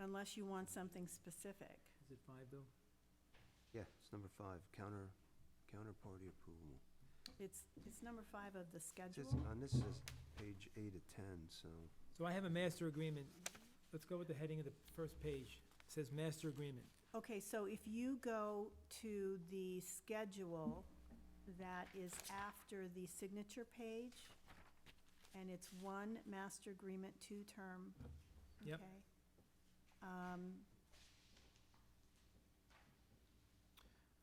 unless you want something specific. Is it five, Bill? Yeah, it's number five, counter, counterparty approval. It's, it's number five of the It schedule. says- On this is page eight of ten, so, So I have a master agreement. Let's go with the heading of the first page. It says master agreement. Okay, so if you go to the schedule that is after the signature page, and it's one master agreement, two-term, Yep. okay? Um,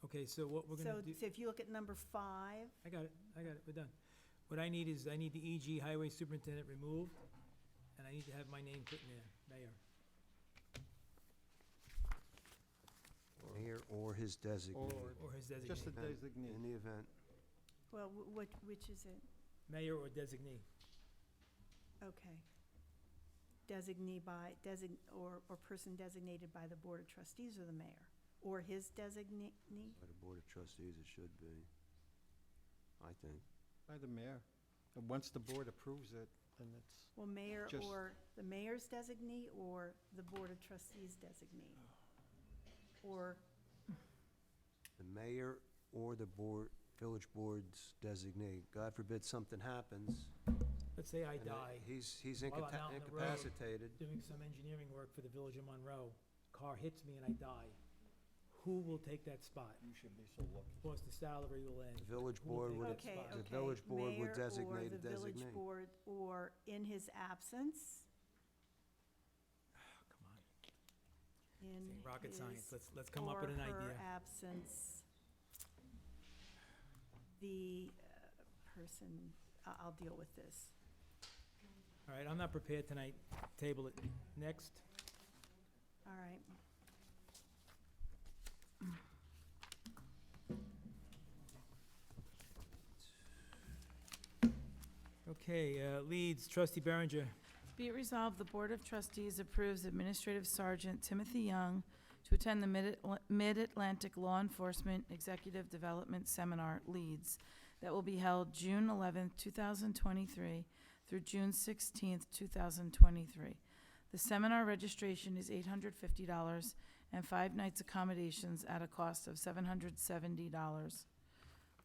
Okay, so what we're So, gonna do, so if you look at number five, I got it, I got it, we're done. What I need is, I need the EG Highway Superintendent removed, and I need to have my name put in there, mayor. mayor or his designee. Or his Just the designee. In designee. the event, well, wh- what, which is it? Mayor or designee. Okay. Designee by, design, or, or person designated by the Board of Trustees or the mayor, or his designee? by the board of trustees, it should be, I think. By the mayor. And once the board approves it, then it's, Well, mayor Just- or the mayor's designee or the Board of Trustees designee? Or, The mayor or the board, village board's designee. God forbid something happens. Let's say I and die He's, he's While I'm incapa- out on the road. incapacitated. doing some engineering work for the Village of Monroe. Car hits me and I die. Who will take that spot? you should be so lucky. Of course, the salary will end. The village Who will board take would that have- okay, spot? okay. The village board would mayor or designate a the village designee. board, Or in his absence, Oh, Come on. This in ain't rocket science, his let's, let's come up with an Or her idea. absence, the uh, person, I- I'll deal with this. All right, I'm not prepared tonight, table it. Next, All right. okay, uh, Leeds, trustee Berenger, Be it resolved, the Board of Trustees approves Administrative Sergeant Timothy Young to attend the Mid- Mid-Atlantic Law Enforcement Executive Development Seminar, Leeds, that will be held June eleventh, two 2023 through June sixteenth, two 2023. The seminar registration is $850 and five nights accommodations at a cost of $770,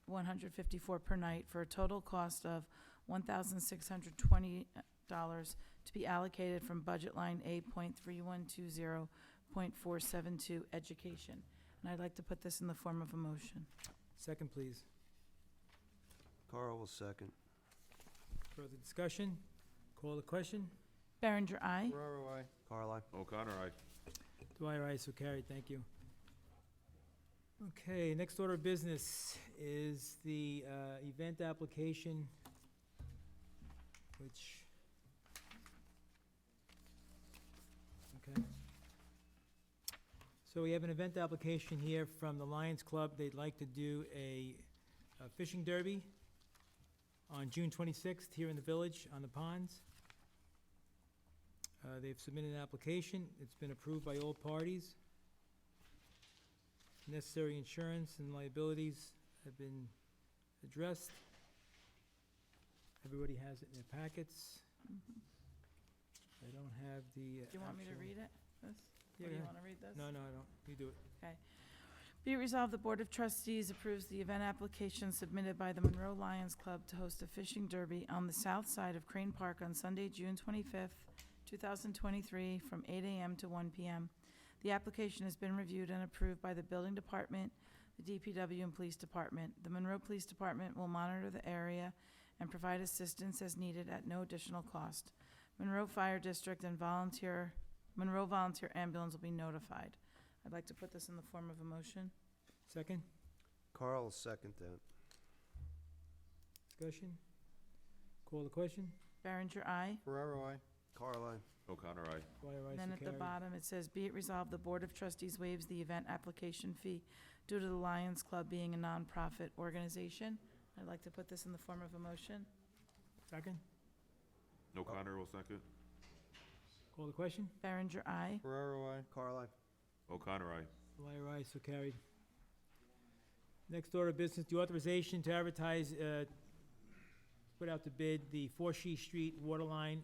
154 per night, for a total cost of $1,620 dollars to be allocated from budget line A point three one two zero point four seven two education. And I'd like to put this in the form of a motion. second, please. Carl will second. Further discussion? Call the question? Berenger, aye. Ferraro, I. Carl, I. O'Connor, aye. Dwyer, aye, so carried, thank you. Okay, next order of business is the uh, event application, which... Okay. So we have an event application here from the Lions Club. They'd like to do a a fishing derby on June 26th here in the village on the ponds. Uh, They've submitted an application, it's been approved by all parties. Necessary insurance and liabilities have been addressed. Everybody has it in their packets. I don't have the. Mm-hmm. Do you want me to read it? This? Or Yeah, do you yeah. want to read this? No, no, I don't. You do it. Be it resolved, the Board of Trustees approves the event application submitted by the Monroe Lions Club to host a fishing derby on the south side of Crane Park on Sunday, June 25th, 2023, from 8 a.m. to 1 p.m. The application has been reviewed and approved by the Building Department, the DPW, and Police Department. The Monroe Police Department will monitor the area and provide assistance as needed at no additional cost. Monroe Fire District and volunteer, Monroe Volunteer Ambulance will be notified. I'd like to put this in the form of a motion. Second, Carl will second that. discussion? Call the question? Berenger, aye. Ferraro, I. Carl, I. O'Connor, aye. Dwyer, aye, so And then at the carried. bottom, it says, "Be it resolved, the Board of Trustees waives the event application fee due to the Lions Club being a nonprofit organization." I'd like to put this in the form of a motion. Second, O'Connor will second. call the question? Berenger, aye. Ferraro, I. Carl, I. O'Connor, aye. Dwyer, aye, so carried. Next order of business, the authorization to advertise, uh, put out to bid the Four She Street water line